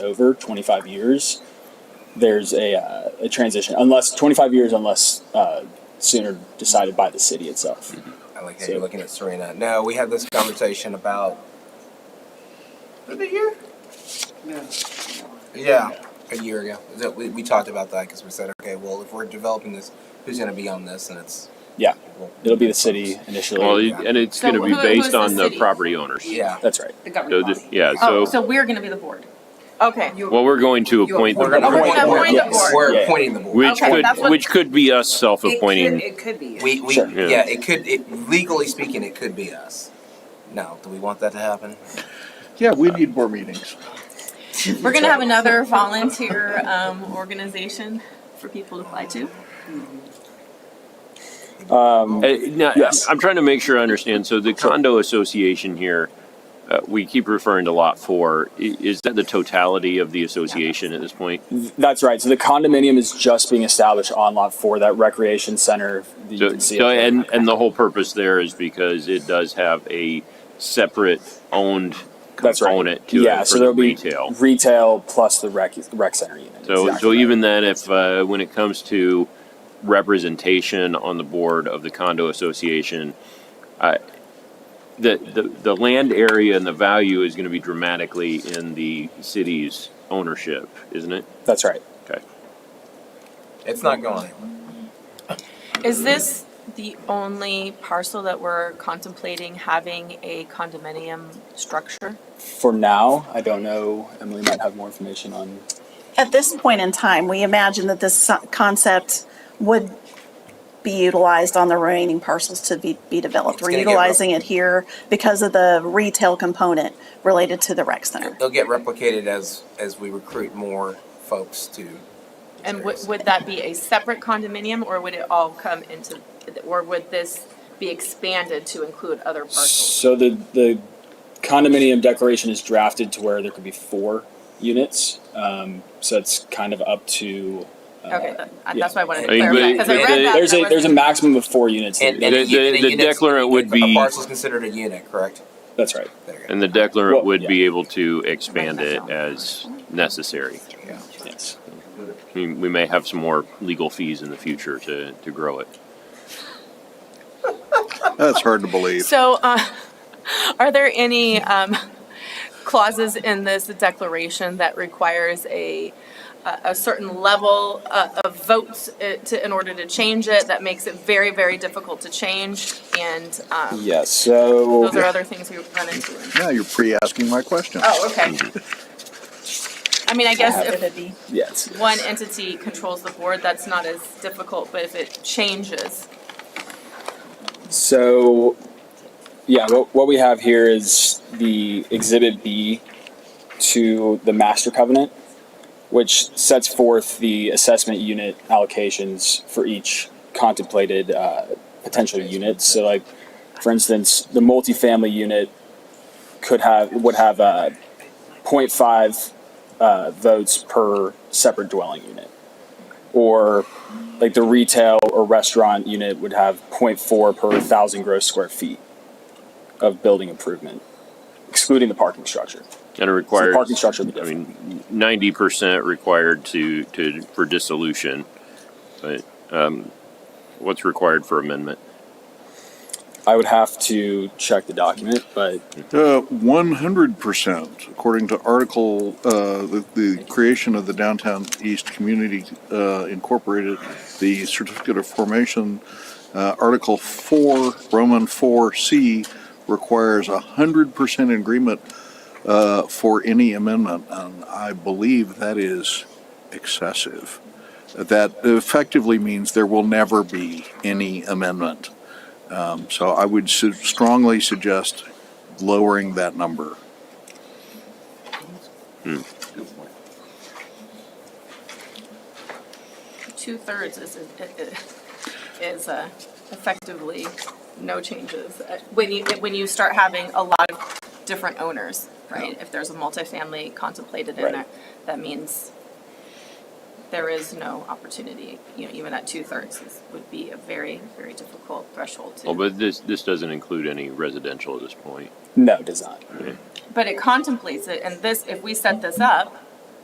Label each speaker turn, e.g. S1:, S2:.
S1: over 25 years, there's a, uh, a transition. Unless 25 years, unless uh, sooner decided by the city itself.
S2: Mm-hmm.
S3: I like how
S1: So-
S3: you're looking at Serena. No, we had this conversation about. Was it a year?
S4: No.
S3: Yeah, a year ago. That we, we talked about that because we said, okay, well, if we're developing this, who's going to be on this? And it's.
S1: Yeah.
S3: well,
S1: It'll be the city initially.
S2: Well, it- and it's
S5: So
S2: gonna be
S5: who- who is
S2: based
S5: the
S2: on the
S5: city?
S2: property owners.
S3: Yeah.
S1: That's right.
S5: The
S2: So
S5: governing
S2: this,
S5: body.
S2: yeah,
S5: Oh,
S2: so,
S5: so we're gonna be the board.
S6: Okay.
S2: well, we're going to
S4: you
S2: appoint
S3: We're
S2: them,
S3: going to
S5: We're
S3: appoint
S5: gonna appoint
S3: the
S5: the
S3: board.
S5: board.
S3: We're
S1: Yeah.
S3: appointing the board.
S2: which
S5: Okay,
S2: could,
S5: that's what-
S2: which could be us self-appointing.
S4: It could be.
S3: We, we
S1: Sure.
S3: yeah.
S2: Yeah.
S3: it could, it, legally speaking, it could be us. Now, do we want that to happen?
S7: Yeah, we need more meetings.
S6: We're gonna have another volunteer um, organization for people to apply to.
S1: Um,
S2: Uh, now,
S1: Yes.
S2: I'm trying to make sure I understand, so the condo association here, uh, we keep referring to lot four, I- is that the totality of the association at this point?
S1: that's right. So the condominium is just being established on lot four, that recreation center. that you
S2: So,
S1: can see
S2: so-
S1: up there.
S2: and, and the whole purpose there is because it does have a separate owned
S1: That's right.
S2: component to
S1: yeah,
S2: it
S1: so
S2: for the
S1: there'll
S2: retail.
S1: be retail plus the rec, rec center unit.
S2: So,
S1: Exactly
S2: so
S1: right.
S2: even then, if, uh, when it comes to representation on the board of the condo association, I- the, the, the land area and the value is gonna be dramatically in the city's ownership, isn't it?
S1: that's right.
S2: Okay.
S3: It's not going anywhere.
S6: Is this the only parcel that we're contemplating having a condominium structure?
S1: For now, I don't know. Emily might have more information on.
S8: At this point in time, we imagine that this so- concept would be utilized on the remaining parcels to be, be developed.
S3: It's
S8: We're
S3: gonna get
S8: utilizing it here because of the retail component related to the rec center.
S3: They'll get replicated as as we recruit more folks to.
S6: And would, would that be a separate condominium or would it all come into, or would this be expanded to include other parcels?
S1: So the the condominium declaration is drafted to where there could be four units. Um, so it's kind of up to. Uh,
S6: Okay, that-
S1: yeah.
S6: that's why I wanted to
S2: I mean, but
S6: clarify,
S2: it-
S6: because I
S2: but
S6: read
S2: it-
S6: that.
S1: There's
S6: and I
S1: a there's a
S6: wasn't-
S1: maximum of four units. that
S3: And,
S1: you-
S3: and
S2: The-
S3: a, u-
S2: the-
S3: and a
S2: the
S3: unit's-
S2: declarant would
S3: a
S2: be-
S3: parcel is considered a unit, correct?
S1: that's right.
S3: There you go.
S2: And the declarant
S1: Well,
S2: would
S1: yeah.
S2: be able to expand it as necessary.
S3: Yeah.
S1: Yes.
S2: I mean, we may have some more legal fees in the future to, to grow it.
S7: That's hard to believe.
S6: So, uh, are there any um, clauses in this declaration that requires a, a a certain level uh, of votes uh, to, in order to change it, that makes it very, very difficult to change? And um,
S1: Yes. So
S6: those are other things we run into.
S7: Now you're pre-asking my question.
S6: Oh, okay. I mean, I guess if
S1: yes.
S6: one entity controls the board, that's not as difficult, but if it changes,
S1: So, yeah, what, what we have here is the Exhibit B to the Master Covenant, which sets forth the assessment unit allocations for each contemplated uh, potential unit. So, like, for instance, the multifamily unit could have would have uh, 0.5 uh, votes per separate dwelling unit, or like the retail or restaurant unit would have 0.4 per thousand gross square feet of building improvement, excluding the parking structure.
S2: And it
S1: So the
S2: requires,
S1: parking structure would be
S2: I
S1: different.
S2: mean, ninety percent required to, to, for dissolution. But, um, what's required for amendment?
S1: I would have to check the document, but
S7: Uh, One hundred percent, according to Article, uh, the, the creation of the Downtown East Community uh, Incorporated, the Certificate of Formation, uh, Article four, Roman four C requires a hundred percent agreement uh, for any amendment, and I believe that is excessive. That effectively means there will never be any amendment. Um, So I would su- strongly suggest lowering that number.
S6: two thirds is, is uh, effectively no changes. Uh, When you, when you start having a lot of different owners, right? If there's a multifamily contemplated in
S1: Right.
S6: there, that means there is no opportunity, you know, even at two thirds is- would be a very, very difficult threshold
S2: Well,
S6: to.
S2: but this, this doesn't include any residential at this point.
S1: no, it does not.
S6: But it contemplates it, and this, if we set this up,